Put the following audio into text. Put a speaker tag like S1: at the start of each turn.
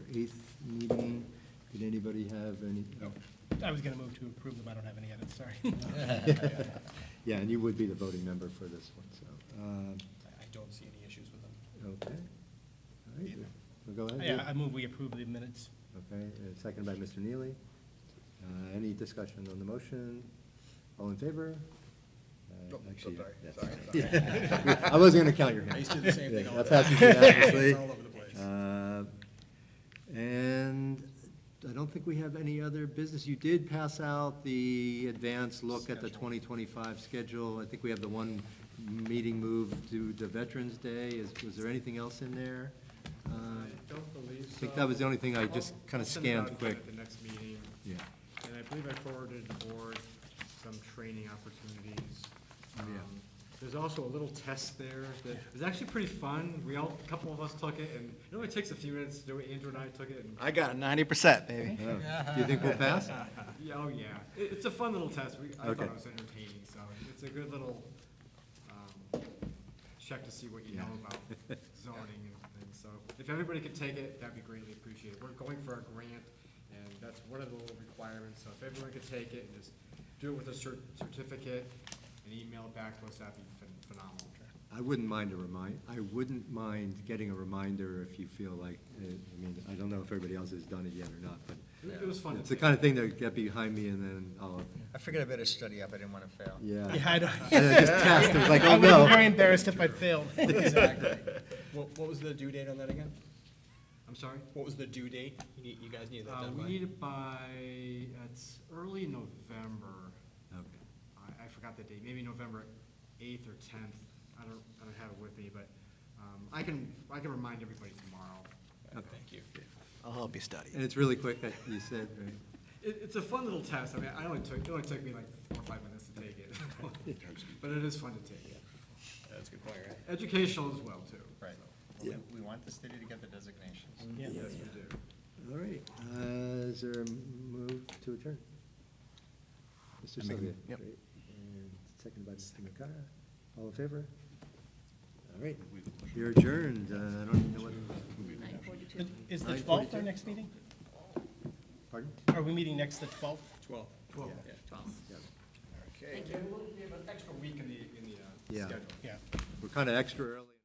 S1: 8th meeting. Did anybody have any?
S2: I was going to move to approve them, I don't have any edits, sorry. I
S1: Yeah, and you would be the voting member for this one, so. um,
S2: I don't see any issues with them.
S1: Okay. All right, well, go ahead.
S2: Yeah, I move we approve the minutes.
S1: Okay, uh, seconded by Mr. Neely. Uh, Any discussion on the motion? All in favor? Uh,
S3: Nope, Oh, so
S1: actually,
S3: sorry,
S1: yes.
S3: sorry, sorry.
S1: I wasn't going to count your hand.
S3: I used to do the same thing
S1: Yeah,
S3: all
S1: that
S3: the time.
S1: passes unanimously.
S3: It's all over the place.
S1: Uh, And I don't think we have any other business. You did pass out the advance look at the
S2: Schedule.
S1: 2025 schedule. I think we have the one meeting move to the Veterans Day. Is Was there anything else in there? Uh,
S4: don't believe so.
S1: I think that was the only thing I just
S4: I'll-
S1: kind
S4: I'll
S1: of
S4: send it out
S1: scanned
S4: again
S1: quick.
S4: At the next meeting,
S1: Yeah.
S4: and I believe I forwarded the board some training opportunities.
S1: Oh, yeah.
S4: Um, There's also a little test there that is actually pretty fun. We all, a couple of us took it, and it only takes a few minutes to do it. Andrew and I took it, and,
S3: I got ninety percent, baby.
S1: Oh. Do you think we'll pass?
S4: yeah, oh, yeah. It, it's a fun little test. We, I thought
S1: Okay.
S4: it was entertaining, so it's a good little, um, check to see what you know
S1: Yeah.
S4: about zoning and things. So if everybody could take it, that'd be greatly appreciated. We're going for a grant, and that's one of the little requirements. So if everyone could take it and just do it with a cer- certificate and email it back to us, that'd be phen- phenomenal.
S1: I wouldn't mind a remind, I wouldn't mind getting a reminder if you feel like, uh, I mean, I don't know if everybody else has done it yet or not, but
S4: It- It was fun to
S1: it's the
S4: take.
S1: kind of thing that would get behind me and then I'll,
S3: I figured I better study up, I didn't wanna fail.
S1: yeah.
S2: Yeah, I
S1: And
S2: don't.
S1: I just test, it was like,
S2: I
S1: oh
S2: would have been very
S1: no.
S2: embarrassed if I failed.
S3: Exactly. What, what was the due date on that again?
S4: I'm sorry?
S3: What was the due date? You need, you guys need that
S4: Uh,
S3: done
S4: we
S3: by?
S4: need it by, it's early November.
S1: Okay.
S4: I, I forgot the date, maybe November eighth or tenth. I don't, I don't have it with me, but, um, I can, I can remind everybody tomorrow.
S3: Thank you. I'll help you study.
S1: And it's really quick, that you said, right?
S4: It, it's a fun little test. I mean, I only took, it only took me like four or five minutes to take it. But it is fun to take.
S3: That's a good point, right?
S4: Educational as well, too.
S3: Right.
S1: Yeah. Mm-hmm.
S3: We want the city to get the designations.
S2: Yeah.
S4: Yes, we do.
S1: All right, uh, is there a move to adjourn? Mr. Sylvia?
S3: yep.
S1: great. And Seconded by Mr. McCara. All in favor? All right, you're adjourned. Uh, I don't even know what,
S2: Is the 12th our next meeting?
S1: pardon?
S2: Are we meeting next the 12th?
S3: Twelve.
S4: Twelve.
S1: Yeah. Yeah.
S3: Okay.
S4: Thank you. We'll give an extra week in the, in the, uh,
S1: Yeah.
S4: schedule.
S2: Yeah.
S1: We're kind of extra early.